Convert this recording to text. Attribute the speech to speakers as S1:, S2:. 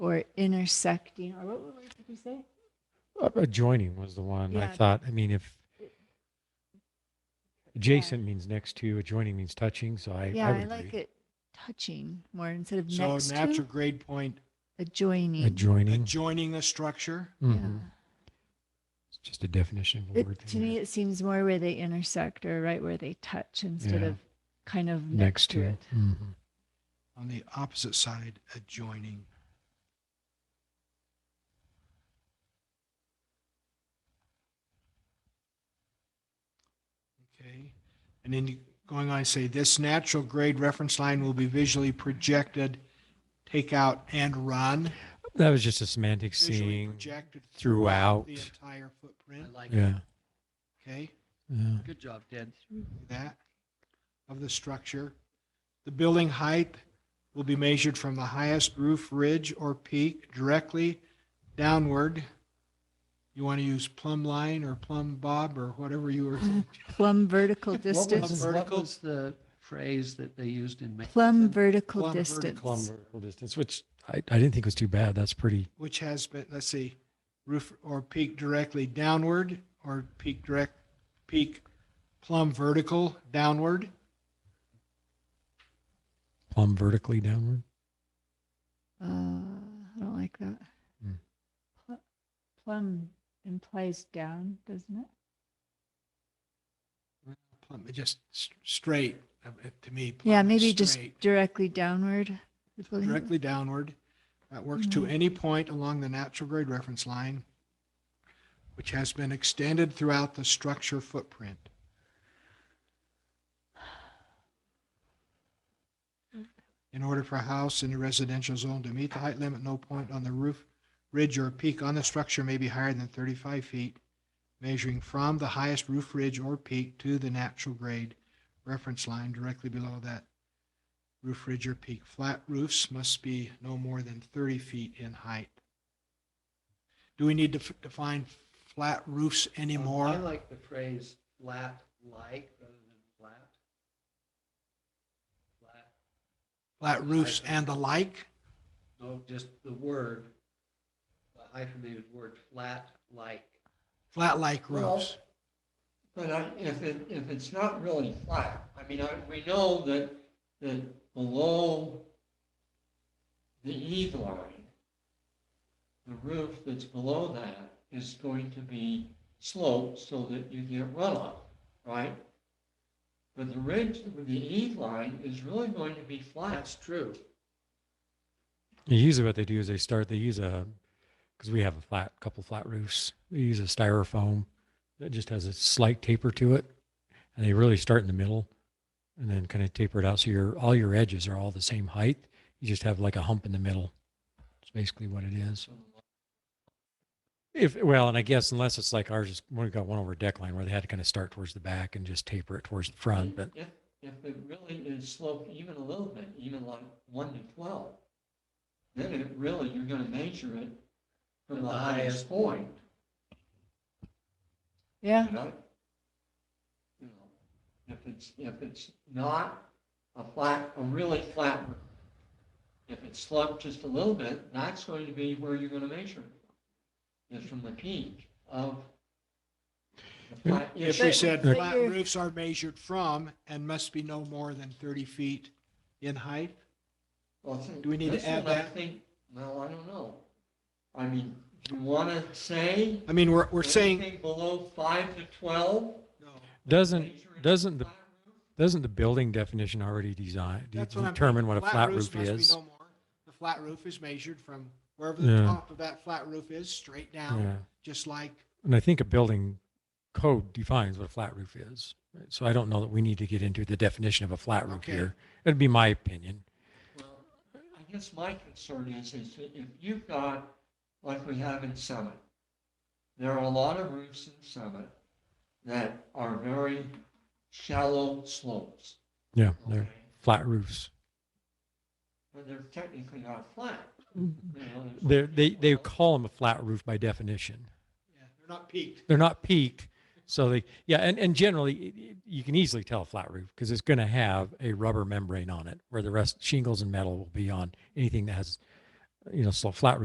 S1: or intersecting, or what word did you say?
S2: Uh, Adjoining was the one I
S1: Yeah.
S2: thought. I mean, if adjacent means next to, adjoining means touching. So I,
S1: Yeah,
S2: I would
S1: I like
S2: agree.
S1: it touching more instead of
S3: So
S1: next
S3: natural
S1: to,
S3: grade point
S1: adjoining.
S2: Adjoining.
S3: adjoining a structure.
S1: Yeah.
S2: Mhm. It's just a definition of a word.
S1: It, to
S2: thing
S1: me,
S2: there.
S1: it seems more where they intersect or right where they touch instead
S2: Yeah.
S1: of kind of
S2: next to.
S1: it.
S2: Mhm.
S3: On the opposite side, adjoining. Okay, and then you- going on, say this natural grade reference line will be visually projected, take out and run.
S2: That was just a semantic
S3: Visually
S2: seeing.
S3: projected
S2: throughout.
S3: The entire footprint,
S4: I like
S2: Yeah.
S4: it.
S3: okay?
S2: yeah.
S4: Good job, Ted.
S3: that of the structure. The building height will be measured from the highest roof ridge or peak directly downward. You want to use plumb line or plumb bob or whatever you were,
S1: Mm-hmm. Plumb vertical
S4: What was,
S1: distance,
S4: what
S3: Vertical.
S4: was the phrase that they used in?
S1: plumb
S4: Mason?
S1: vertical
S3: Plumb vertical
S1: distance.
S2: Plumb vertical distance, which I, I didn't think was too bad. That's pretty.
S3: which has been, let's see, roof or peak directly downward or peak direct, peak plumb vertical downward.
S2: plumb vertically downward.
S1: Uh, I don't like that.
S2: Mm.
S1: Pl- Plumb implies down, doesn't it?
S3: Plumb, just s- straight, uh, to me. plumb
S1: Yeah,
S3: is
S1: maybe just
S3: straight.
S1: directly downward. is what I-
S3: directly downward. That works to any point along the natural grade reference line, which has been extended throughout the structure footprint. In order for a house in a residential zone to meet the height limit, no point on the roof, ridge, or peak on the structure may be higher than 35 feet, measuring from the highest roof ridge or peak to the natural grade reference line directly below that roof ridge or peak. Flat roofs must be no more than 30 feet in height. Do we need to f- define flat roofs
S4: Um,
S3: anymore?
S4: I like the phrase flat like rather than flat. Flat,
S3: Flat roofs and the like?
S4: no, just the word, the hyphenated word, flat like.
S3: Flat like
S5: Well,
S3: roofs.
S5: But I, if it, if it's not really flat, I mean, I, we know that, that below the eve line, the roof that's below that is going to be sloped so that you get runoff, right? But the ridge with the eve line is really going to be flat.
S4: That's true.
S2: And usually, what they do is they start. They use a because we have a flat couple flat roofs. They use a styrofoam that just has a slight taper to it, and they really start in the middle, and then kind of taper it out. So your all your edges are all the same height. You just have like a hump in the middle. It's basically what it is. If well, and I guess unless it's like ours, is we got one over deck line where they had to kind of start towards the back and just taper it towards the front. But
S5: If, if it really is sloped even a little bit, even like one to twelve, then it really, you're gonna measure it from the highest point,
S1: Yeah,
S5: you know? You know, If it's, if it's not a flat, a really flat roof, if it's sloped just a little bit, that's going to be where you're gonna measure it. Is from the peak of the flat.
S3: If we said
S1: But
S3: flat
S1: you're-
S3: roofs are measured from and must be no more than 30 feet in height,
S5: Well, I think
S3: Do we need to
S5: this
S3: add
S5: one, I
S3: that?
S5: think- Well, I don't know. I mean, do you want to say?
S3: I mean, we're, we're saying,
S5: anything below five to 12? Measure
S2: doesn't
S5: it
S2: doesn't the
S5: flat roof?
S2: doesn't the building definition already design
S3: that's what I'm.
S2: determine what
S3: thinking.
S2: a flat
S3: roofs
S2: roof
S3: must be
S2: is?
S3: no more. The flat roof is measured from wherever the
S2: Yeah.
S3: top of that flat roof is, straight
S2: Yeah.
S3: down, just like
S2: And I think a building code defines what a flat roof is. right? So I don't know that we need to get into the definition of a flat roof
S3: Okay.
S2: here. It'd be my opinion.
S5: Well, I guess my concern is, is that if you've got, like we have in Summit, there are a lot of roofs in Summit that are very shallow slopes.
S2: Yeah,
S5: Okay,
S2: they're flat roofs.
S5: But they're technically not flat.
S3: Mm.
S5: you know, there's-
S2: They're, they they call them a flat roof by definition.
S3: Yeah, they're not peaked.
S2: They're not peaked, so they yeah. And and generally, it- it- you can easily tell a flat roof because it's going to have a rubber membrane on it, where the rest shingles and metal will be on anything that has, you know, so flat